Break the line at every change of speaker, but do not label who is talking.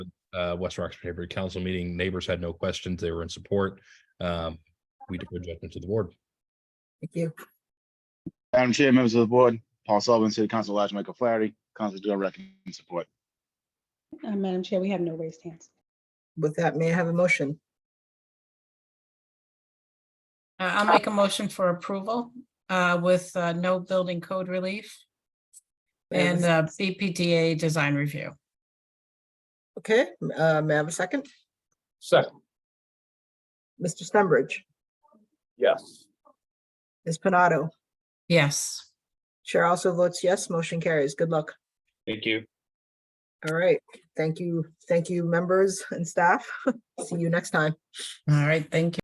uh, West Roxbury Neighborhood Council meeting. Neighbors had no questions. They were in support. Um, we defer judgment to the board.
Thank you.
Madam Chair, members of the board, Paul Sullivan, City Council, Elijah Michael Flaherty, Council Joe recommend support.
Uh, Madam Chair, we have no raised hands.
With that, may I have a motion?
Uh, I'll make a motion for approval uh, with uh, no building code relief
May I have
and
a-
uh, BPDA design review.
Okay, m- uh, may I have a second?
Second,
Mr. Stenbridge,
yes.
Ms. Panado,
Yes.
Chair also votes yes, motion carries. Good luck.
Thank you.
All right, thank you, thank you, members and staff. See you next time.
All right. Thank you.